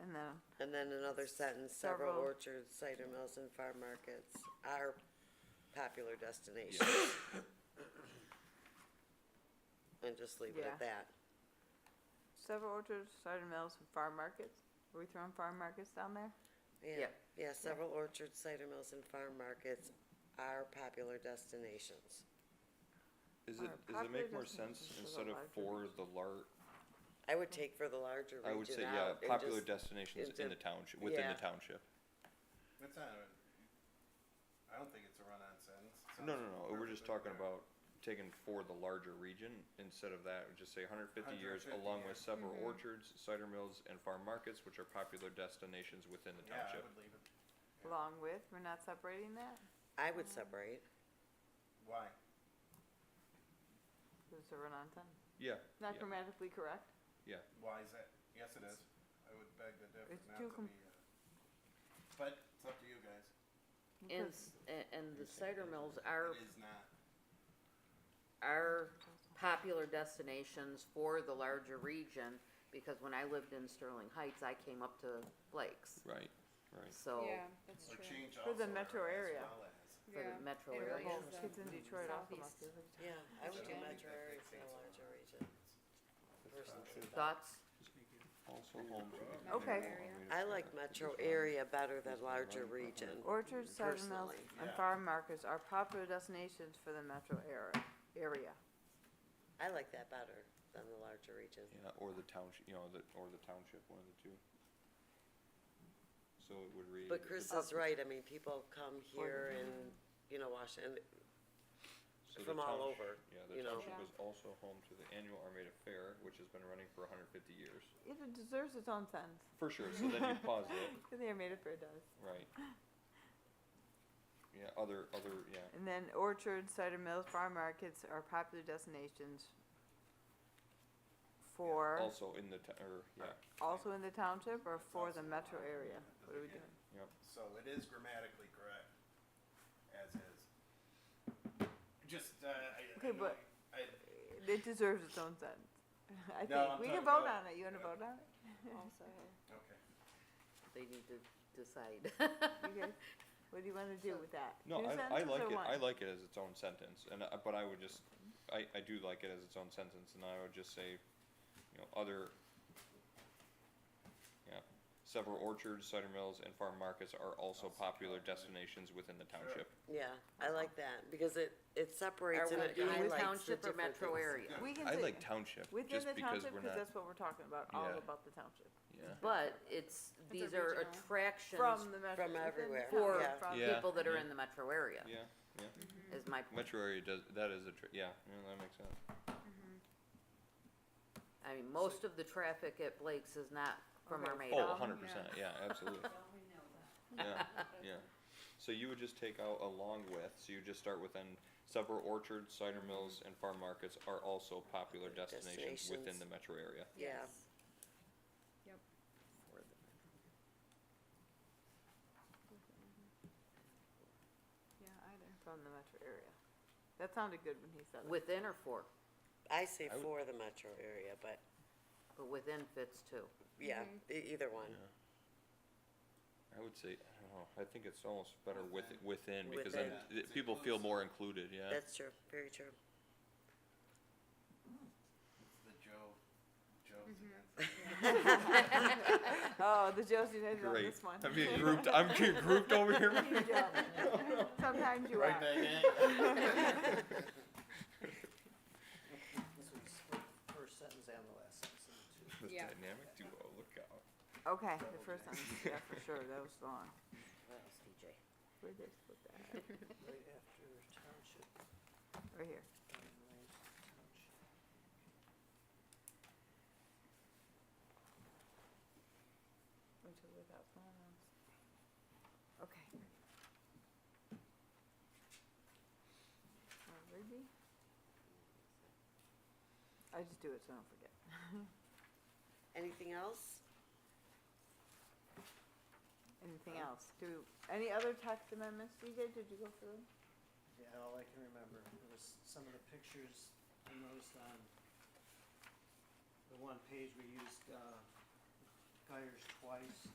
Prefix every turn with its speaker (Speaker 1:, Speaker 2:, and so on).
Speaker 1: And then another sentence, several
Speaker 2: Several.
Speaker 1: orchards, cider mills and farm markets are popular destinations. And just leave it
Speaker 2: Yeah.
Speaker 1: at that.
Speaker 2: Several orchards, cider mills, and farm markets. Are we throwing farm markets down there?
Speaker 1: Yeah,
Speaker 2: Yep.
Speaker 1: yeah, several orchards, cider mills and farm markets are popular destinations.
Speaker 3: Is it,
Speaker 2: Or
Speaker 3: does it make
Speaker 2: popular
Speaker 3: more
Speaker 2: destinations
Speaker 3: sense
Speaker 2: for the
Speaker 3: instead of
Speaker 2: larger
Speaker 3: for the lar-
Speaker 1: I would take for the larger
Speaker 3: I would say,
Speaker 1: region
Speaker 3: yeah,
Speaker 1: out and
Speaker 3: popular
Speaker 1: just,
Speaker 3: destinations
Speaker 1: it's a-
Speaker 3: in the township, within
Speaker 1: yeah.
Speaker 3: the township.
Speaker 4: It's not, a- I don't think it's a run-on sentence. It
Speaker 3: No,
Speaker 4: sounds
Speaker 3: no, no, we're just talking
Speaker 4: perfectly fair.
Speaker 3: about taking for the larger region, instead of that, we just say hundred fifty years
Speaker 4: 150
Speaker 3: along with
Speaker 4: years.
Speaker 3: several
Speaker 2: Mm-hmm.
Speaker 3: orchards, cider mills, and farm markets, which are popular destinations within the
Speaker 4: Yeah, I
Speaker 3: township.
Speaker 4: would leave it,
Speaker 2: Along with, we're not separating that?
Speaker 1: I would separate.
Speaker 4: why?
Speaker 2: Is it run on ten?
Speaker 3: Yeah,
Speaker 2: Not
Speaker 3: yeah,
Speaker 2: grammatically correct?
Speaker 3: yeah,
Speaker 4: Why is that? Yes, it is. I would beg the differ
Speaker 2: It's
Speaker 4: not
Speaker 2: too
Speaker 4: to
Speaker 2: com-
Speaker 4: be, uh, but it's up to you guys.
Speaker 5: And,
Speaker 2: Because
Speaker 5: s- a- and the cider mills are,
Speaker 4: It is not.
Speaker 5: are popular destinations for the larger region, because when I lived in Sterling Heights, I came up to Blake's,
Speaker 3: right, right.
Speaker 5: so,
Speaker 6: Yeah, that's
Speaker 4: Or
Speaker 6: true.
Speaker 4: change
Speaker 2: For the
Speaker 4: also
Speaker 2: metro
Speaker 4: or as
Speaker 2: area.
Speaker 4: well as.
Speaker 5: for
Speaker 6: Yeah.
Speaker 5: the metro
Speaker 6: And
Speaker 2: the
Speaker 5: area.
Speaker 2: whole
Speaker 6: areas, um,
Speaker 2: kids in Detroit also must be.
Speaker 6: southeast.
Speaker 1: Yeah, I would do
Speaker 4: don't think
Speaker 1: metro
Speaker 4: that
Speaker 1: area for
Speaker 4: dictates
Speaker 1: the
Speaker 4: a lot.
Speaker 1: larger region. versus the-
Speaker 5: Thoughts?
Speaker 3: Also home to the
Speaker 2: Okay.
Speaker 3: community
Speaker 6: Area.
Speaker 1: I like metro area better than larger region.
Speaker 2: Orchards, cider mills,
Speaker 1: Personally,
Speaker 2: and
Speaker 4: yeah.
Speaker 2: farm markets are popular destinations for the metro area, area.
Speaker 1: I like that better than the larger region.
Speaker 3: Yeah, or the township, you know, the, or the township, one of the two. So it would read.
Speaker 1: But Chris is right, I mean, people come here and, you know, Washington,
Speaker 3: so the
Speaker 1: from all
Speaker 3: townsh-
Speaker 1: over,
Speaker 3: Yeah, the
Speaker 1: you know.
Speaker 3: township is also home to the annual Armada Fair, which has been running for hundred fifty years.
Speaker 2: It deserves its own sentence.
Speaker 3: For sure, so then you pause it,
Speaker 2: The Armada Fair does.
Speaker 3: right. Yeah, other, other, yeah,
Speaker 2: And then orchards, cider mills, farm markets are popular destinations for,
Speaker 3: also in the, t- or, yeah,
Speaker 2: also in the township or for the metro area? What are we doing?
Speaker 3: yep,
Speaker 4: So it is grammatically correct, as is. Just, uh, I, I
Speaker 2: Okay,
Speaker 4: know
Speaker 2: but-
Speaker 4: I,
Speaker 2: It deserves its own sentence. I
Speaker 4: No,
Speaker 2: think,
Speaker 4: I'm
Speaker 2: we can
Speaker 4: talking
Speaker 2: vote
Speaker 4: about-
Speaker 2: on it, you wanna
Speaker 4: yeah.
Speaker 2: vote on it?
Speaker 6: Also,
Speaker 4: okay.
Speaker 5: They need to decide.
Speaker 2: You guys, what do you wanna do with that?
Speaker 3: no,
Speaker 2: Two
Speaker 3: I, I
Speaker 2: sentences
Speaker 3: like
Speaker 2: or
Speaker 3: it,
Speaker 2: one?
Speaker 3: I like it as its own sentence, and, I- but I would just, I, I do like it as its own sentence, and I would just say, you know, other, yeah, several orchards, cider mills, and farm markets are also popular destinations within the township.
Speaker 1: Yeah, I like that, because it, it separates
Speaker 5: Are
Speaker 1: and
Speaker 5: we
Speaker 1: it
Speaker 5: doing
Speaker 1: highlights the
Speaker 5: township or
Speaker 1: different things.
Speaker 5: metro area?
Speaker 2: We can
Speaker 3: I
Speaker 2: say
Speaker 3: like township,
Speaker 2: within
Speaker 3: just
Speaker 2: the
Speaker 3: because
Speaker 2: township,
Speaker 3: we're
Speaker 2: cause
Speaker 3: not,
Speaker 2: that's what we're talking about, all
Speaker 3: Yeah.
Speaker 2: about the township.
Speaker 3: yeah,
Speaker 5: But it's,
Speaker 6: a
Speaker 5: these are
Speaker 6: regional.
Speaker 5: attractions
Speaker 2: From the metro. within
Speaker 1: From
Speaker 2: the
Speaker 1: everywhere,
Speaker 2: township,
Speaker 5: yeah.
Speaker 2: from-
Speaker 3: Yeah.
Speaker 5: people that are in the metro area,
Speaker 3: yeah, yeah.
Speaker 5: is my point.
Speaker 3: Metro area does, that is a, tr- yeah, yeah, that makes sense.
Speaker 5: I mean, most of the traffic at Blake's is not from
Speaker 2: Okay.
Speaker 5: Armada.
Speaker 3: Oh,
Speaker 2: Um,
Speaker 3: hundred percent, yeah, absolutely. Yeah, yeah. So you would just take out along with, so you just start with then several orchards, cider mills, and farm markets are also popular destinations within
Speaker 1: Destinations.
Speaker 3: the metro area.
Speaker 1: Yeah.
Speaker 2: Yeah, either. From the metro area. That sounded good when he said it.
Speaker 5: Within or for,
Speaker 1: I say
Speaker 3: I would-
Speaker 1: for the metro area, but,
Speaker 5: but within fits too.
Speaker 1: yeah,
Speaker 5: Mm-hmm.
Speaker 1: e- either one,
Speaker 3: I would say, I don't know, I think it's almost better with, within, because then
Speaker 4: Within.
Speaker 3: th- people feel more included, yeah.
Speaker 1: that's true, very true.
Speaker 4: It's the Joe, Joe's
Speaker 2: Mm-hmm.
Speaker 4: against.
Speaker 2: Oh, the Joe's United on
Speaker 3: Great.
Speaker 2: this one.
Speaker 3: I'm being grouped, I'm being grouped over here.
Speaker 2: You don't. Sometimes you
Speaker 4: Right
Speaker 2: are.
Speaker 4: back in.
Speaker 7: So we split the first sentence and the last sentence into
Speaker 3: The
Speaker 7: two.
Speaker 6: Yeah.
Speaker 3: dynamic duo, look out.
Speaker 2: Okay, the first sentence, yeah, for sure, that was long.
Speaker 7: What else, DJ?
Speaker 2: Where'd they split that? at?
Speaker 7: Right after township,
Speaker 2: Right here.
Speaker 7: um, lands township.
Speaker 2: Which is without pronouns. Okay. Uh, Rigby? I just do it so I don't forget.
Speaker 1: Anything else?
Speaker 2: Anything else? Do, any other text amendments, DJ, did you go through? them?
Speaker 7: Yeah, all I can remember, it was some of the pictures I noticed on the one page we used, uh, Guyers twice.